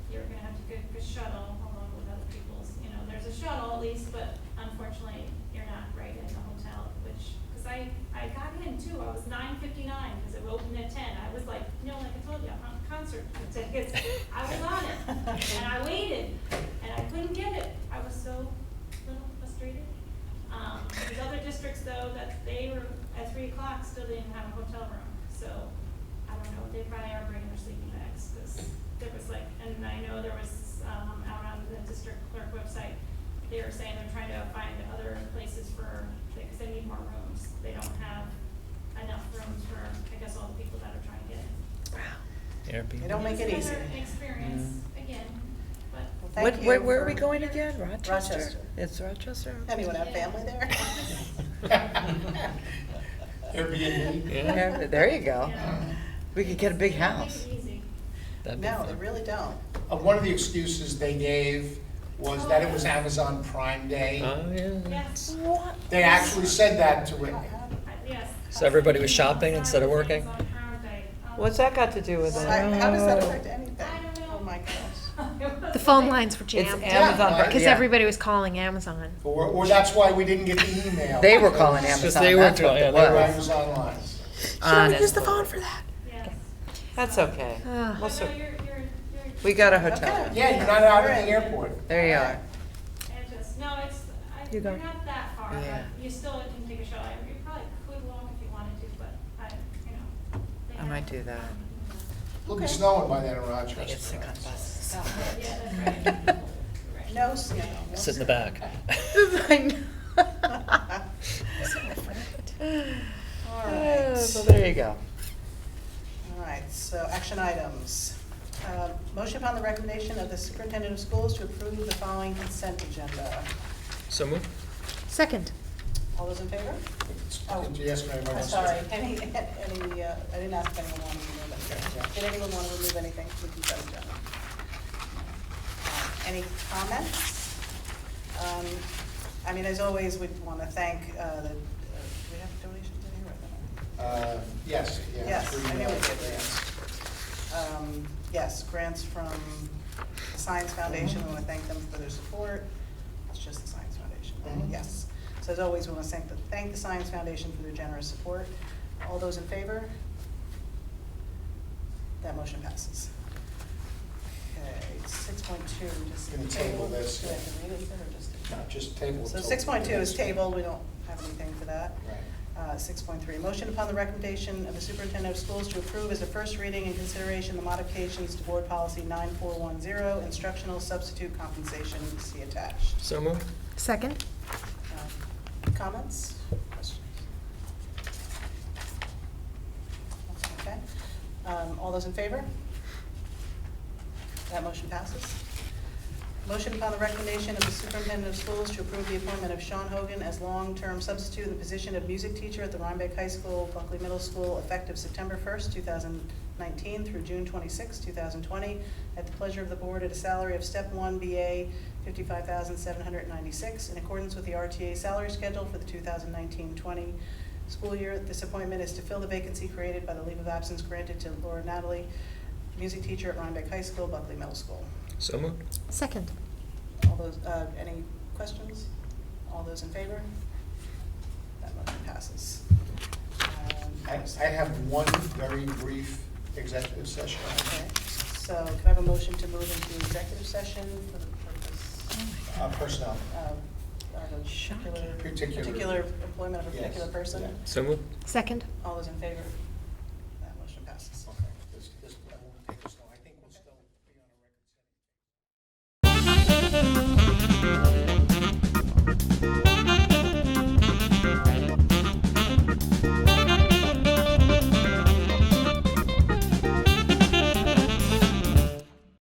good for shuttle along with other people's, you know, there's a shuttle at least, but unfortunately, you're not right in the hotel, which, cause I, I got in too, I was nine fifty-nine, cause it opened at ten, I was like, you know, like I told you, I'm on concert tickets, I was on it, and I waited, and I couldn't get it, I was so little frustrated. Um, there's other districts though, that they were, at three o'clock, still didn't have a hotel room, so, I don't know, they probably are bringing their sleeping bags, because there was like, and I know there was, um, out on the district clerk website, they were saying they're trying to find other places for, because they need more rooms, they don't have enough rooms for, I guess, all the people that are trying to get in. Airbnb. They don't make it It's easy. another Experience, again, but. Well, What, thank where, you where are for- we going again? Rochester? Rochester. It's Rochester? Anyone have family there? Airbnb, yeah. Yeah, There you go. yeah. We could get a big They don't house. Make it easy. That'd be No, they fun. really don't. Uh, One of the excuses they gave was that Oh. it was Amazon Prime Day. Oh, yeah. Yes, What? They actually said that to Whitney. Oh, I- yes. So everybody was shopping instead of working? Amazon Prime Day. Um, What's that got to do with So it? I- How does that Oh. affect anything? I don't know. Oh, my gosh. The phone lines were jammed Am- Amazon, because yeah. everybody was calling Amazon. Or, or that's why we didn't get the email. They were calling Because Amazon, they were that's what calling- it yeah, they They were was. Amazon lines. Honestly. use the phone for that. Yes. That's okay. Ugh. We'll But no, sort- you're, you're, you're. We got a hotel. Okay. Yeah, you're not out at the airport. There you are. And just, no, it's, I, You you're go. not that far, Yeah. but you still can take a shuttle. You probably could walk if you wanted to, but I, you know. they I might have- do that. It'll be snowing by then in I get Rochester. sick on buses. Yeah, that's right. Right. No snow. Sit in the back. I know. All Oh, right. So there you go. All right, so action items. Uh, Motion upon the recommendation of the superintendent of schools to approve the following consent agenda. So move. Second. All those in favor? Oh. Did you ask me if I I'm was- sorry, any, any, uh, I didn't ask if anyone wanted to remove anything. Did anyone want to remove anything from the consent agenda? Uh, Any comments? Um, I mean, as always, we want to thank uh, the, uh, do we have donations in here right now? Uh, Yes, yeah. Yes, three I knew we emails. did, yes. Um, Yes, grants from Science Foundation, we want to thank them for their support. It's just the Science Foundation, right? Mhm. yes. So as always, we want to thank the, thank the Science Foundation for their generous support. All those in favor? That motion passes. Okay, six point two, just. Gonna table this, Do I have yeah. to read it or just? No, just table. it So till- six point two is tabled, we don't have anything for that. Right. Uh, 6.3, motion upon the recommendation of the superintendent of schools to approve as a first reading and consideration the modifications to board policy 9410, instructional substitute compensation, see attached. So move. Second. Um, Comments? Questions? Okay. Um, All those in favor? That motion passes. Motion upon the recommendation of the superintendent of schools to approve the appointment of Sean Hogan as long-term substitute in the position of music teacher at the Rhinebeck High School, Buckley Middle School, effective September 1st, 2019 through June 26, 2020, at the pleasure of the board at a salary of step one BA 55796 in accordance with the RTA salary schedule for the 2019-20 school year. This appointment is to fill the vacancy created by the leave of absence granted to Laura Natalie, music teacher at Rhinebeck High School, Buckley Middle School. So move. Second. All those, uh, any questions? All those in favor? That motion passes. Um, I I have one very brief executive session. Okay, so can I have a motion to move into executive session for the purpose Uh, Personnel. of, of a Oh Shocking. particular, Particular. particular employment of a Yes, particular person? yeah. So move. Second. All those in favor?